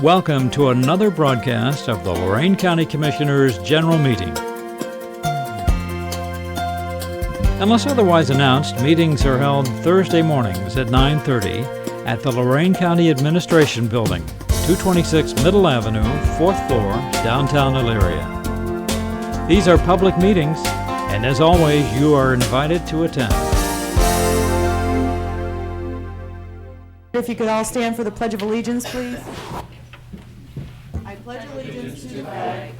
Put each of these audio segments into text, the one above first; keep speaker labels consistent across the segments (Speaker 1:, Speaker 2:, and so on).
Speaker 1: Welcome to another broadcast of the Lorraine County Commissioners' General Meeting. Unless otherwise announced, meetings are held Thursday mornings at 9:30 at the Lorraine County Administration Building, 226 Middle Avenue, 4th floor, downtown Elyria. These are public meetings, and as always, you are invited to attend.
Speaker 2: If you could all stand for the Pledge of Allegiance, please. I pledge allegiance to the flag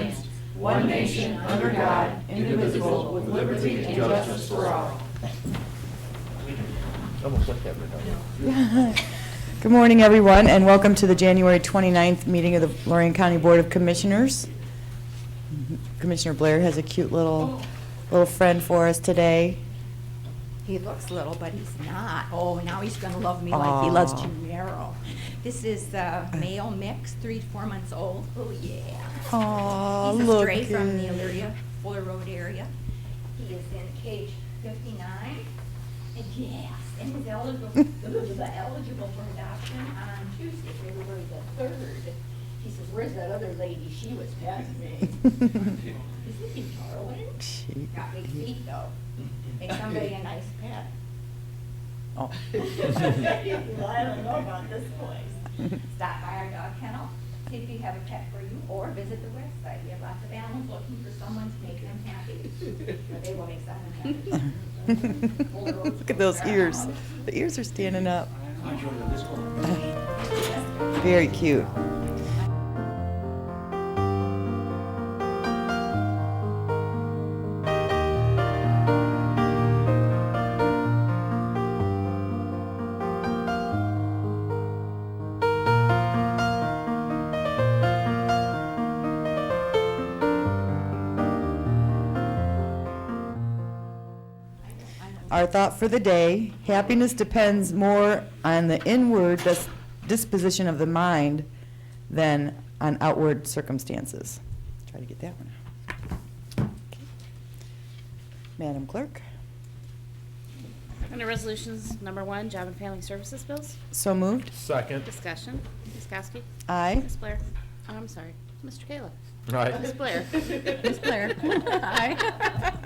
Speaker 2: of the United States of America and to the republic for which it stands, one nation, under God, indivisible, with liberty and justice for all. Good morning, everyone, and welcome to the January 29th meeting of the Lorraine County Board of Commissioners. Commissioner Blair has a cute little, little friend for us today.
Speaker 3: He looks little, but he's not. Oh, now he's gonna love me like he loves
Speaker 2: Aw.
Speaker 3: Gennaro. This is uh, male mix, three, to four months old. Oh, yeah.
Speaker 2: Aw,
Speaker 3: He's a
Speaker 2: look
Speaker 3: stray from the
Speaker 2: at-
Speaker 3: Elyria, Fuller Road area. He is in cage fifty-nine. And yes, and he's eligible, eligible for adoption on Tuesday, February the third. He says, where's that other lady? She was past me. Is this in Darwin?
Speaker 2: She-
Speaker 3: Got big feet though. Make somebody a nice pet.
Speaker 2: Oh.
Speaker 3: Well, I don't know about this place. Stop by our dog kennel, see if you have a pet for you, or visit the website. We have lots of animals looking for someone to make them happy. Or they will make someone happy.
Speaker 2: Look at those ears. The ears are standing up. Very cute. Our thought for the day, happiness depends more on the inward dis- disposition of the mind than on outward circumstances. Try to get that one out. Okay. Madam Clerk,
Speaker 4: Under Resolutions Number One, Job and Family Services Bills,
Speaker 2: so moved.
Speaker 5: Second.
Speaker 4: discussion, Ms. Kowski,
Speaker 2: Aye.
Speaker 4: Ms. Blair, oh, I'm sorry, Mr. Kayla, Ms.
Speaker 5: Right.
Speaker 4: Blair, Ms. Blair. Aye.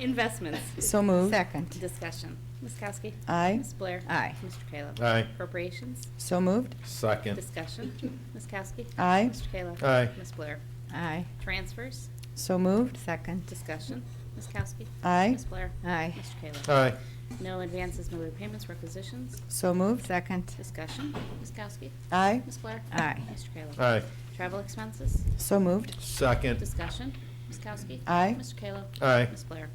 Speaker 4: Investments,
Speaker 2: So moved.
Speaker 3: Second.
Speaker 4: discussion, Ms. Kowski.
Speaker 2: Aye.
Speaker 4: Ms. Blair.
Speaker 3: Aye.
Speaker 4: Mr. Kayla.
Speaker 5: Aye.
Speaker 4: Appropriations,
Speaker 2: So moved.
Speaker 5: Second.
Speaker 4: discussion, Ms. Kowski.
Speaker 2: Aye.
Speaker 4: Mr. Kayla.
Speaker 5: Aye.
Speaker 4: Ms. Blair.
Speaker 3: Aye.
Speaker 4: Transfers,
Speaker 2: So moved.
Speaker 3: Second.
Speaker 4: discussion, Ms. Kowski.
Speaker 2: Aye.
Speaker 4: Ms. Blair.
Speaker 3: Aye.
Speaker 4: Mr. Kayla.
Speaker 5: Aye.
Speaker 4: No advances, no repayments, requisitions,
Speaker 2: So moved.
Speaker 3: Second.
Speaker 4: discussion, Ms. Kowski.
Speaker 2: Aye.
Speaker 4: Ms. Blair.
Speaker 3: Aye.
Speaker 4: Mr. Kayla.
Speaker 5: Aye.
Speaker 4: Travel expenses,
Speaker 2: So moved.
Speaker 5: Second.
Speaker 4: discussion, Ms. Kowski.
Speaker 2: Aye.
Speaker 4: Mr. Kayla.
Speaker 5: Aye.
Speaker 4: Ms. Blair.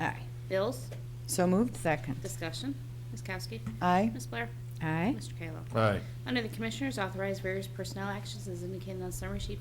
Speaker 3: Aye.
Speaker 4: Bills,
Speaker 2: So moved.
Speaker 3: Second.
Speaker 4: discussion, Ms. Kowski.
Speaker 2: Aye.
Speaker 4: Ms. Blair.
Speaker 3: Aye.
Speaker 4: Mr. Kayla.
Speaker 5: Aye.
Speaker 4: Under the Commissioners, authorize various personnel actions as indicated on summary sheet